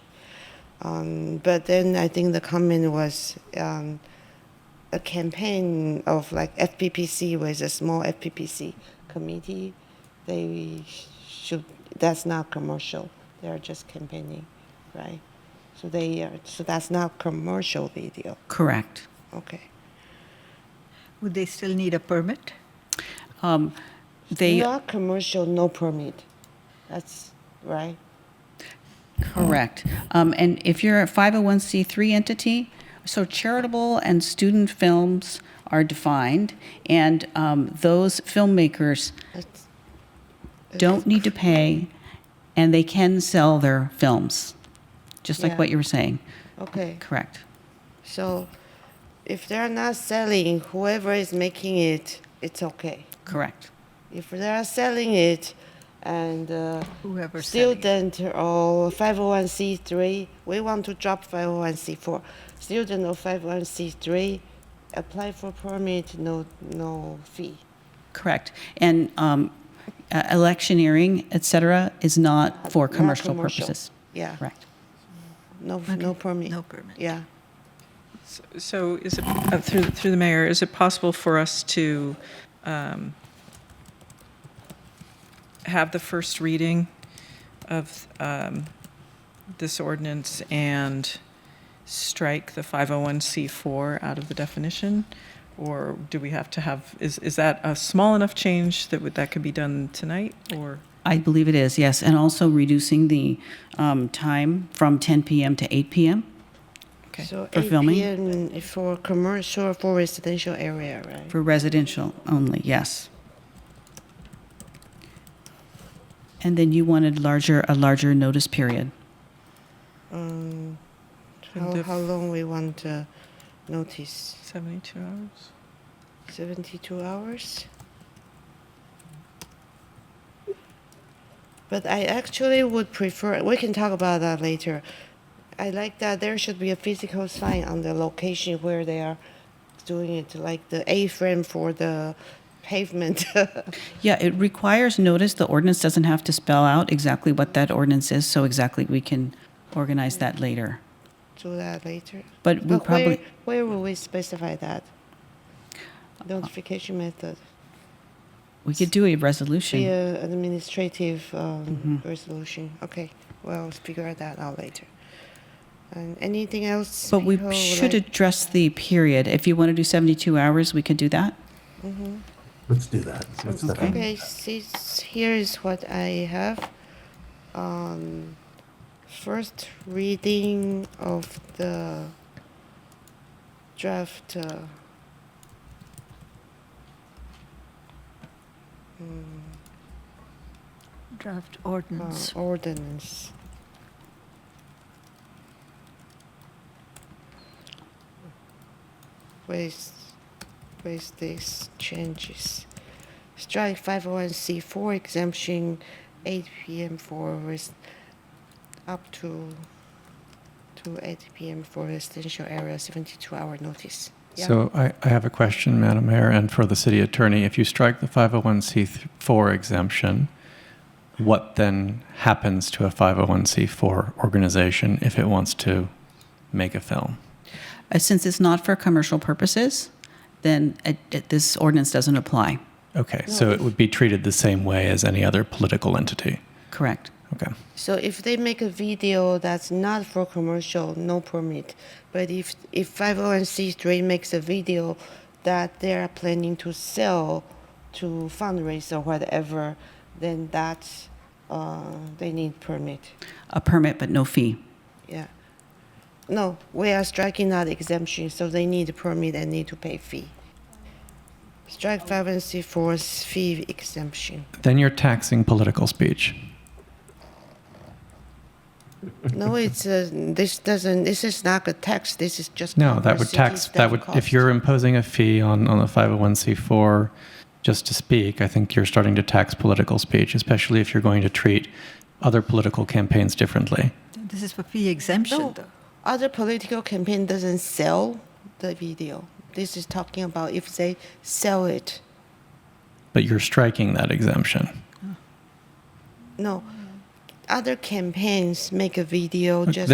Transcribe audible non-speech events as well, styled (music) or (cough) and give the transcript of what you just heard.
Um, but then I think the comment was um, a campaign of like FPPC with a small FPPC committee. They should. That's not commercial. They are just campaigning, right? So they are. So that's not commercial video. Correct. Okay. Would they still need a permit? Um, They, not commercial, no permit. That's right. correct. Um, And if you're a 501c3 entity, so charitable and student films are defined, and um, those filmmakers That's, don't need to pay, and they can sell their films, just like Yeah. what you were saying. okay. Correct. So if they're not selling, whoever is making it, it's okay. Correct. If they're selling it and uh, Whoever's selling it. student or 501c3, we want to drop 501c4. Student or 501c3, apply for permit, no, no fee. Correct. And um, uh, electioneering, et cetera, is not for Not commercial commercial. purposes. Yeah, Correct. no, no permit. No permit. Yeah. S- So is it, uh, through, through the mayor, is it possible for us to um, have the first reading of um, this ordinance and strike the 501c4 out of the definition? Or do we have to have, is, is that a small enough change that would, that could be done tonight? Or, I believe it is, yes. And also reducing the um, time from 10 PM to 8 PM. okay, So For filming? 8 PM for commercial, for residential area, right? For residential only, yes. And then you wanted larger, a larger notice period. Um, And How, the how long we want uh, notice? 72 hours? 72 hours? But I actually would prefer, we can talk about that later. I like that there should be a physical sign on the location where they are doing it, like the A-frame for the pavement. (laughs) Yeah, it requires notice. The ordinance doesn't have to spell out exactly what that ordinance is, so exactly we can organize that later. Do that later. But we But where, probably, Uh, where will we specify that? Notification method, we could do a resolution. via uh, administrative Mm-hmm. um, resolution. Okay, well, figure that out later. And anything else? But we people would should Oh, like- address the period. If you want to do 72 hours, we could do that. Let's do that. Let's step up. Mm-hmm. Okay, see, here is what I have. Um, first reading of the draft. Uh, mm, Draft uh, ordinance. ordinance. With, with these changes. Strike 501c4 exemption 8 p.m. for res- up to to 8 p.m. for residential area 72 hour notice. Yeah. So I, I have a question, Madam Mayor, and for the city attorney. If you strike the 501c4 exemption, what then happens to a 501c4 organization if it wants to make a film? Uh, Since it's not for commercial purposes, then it- it- this ordinance doesn't apply. Okay, so it would be treated the same way as any other political entity. Correct. Okay. So if they make a video that's not for commercial, no permit. But if if 501c3 makes a video that they are planning to sell to fundraise or whatever, then that's uh, they need permit. A permit, but no fee. Yeah. No, we are striking that exemption, so they need a permit and need to pay fee. Strike 501c4's fee exemption. Then you're taxing political speech. No, it's a, this doesn't. This is not a tax. This is just No, that cover would city tax, staff that would, cost. if you're imposing a fee on, oh on a 501c4 just to speak, I think you're starting to tax political speech, especially if you're going to treat other political campaigns differently. This is for fee exemption, No. though. other political campaign doesn't sell the video. This is talking about if they sell it. But you're striking that exemption. No, other campaigns make a video Look, just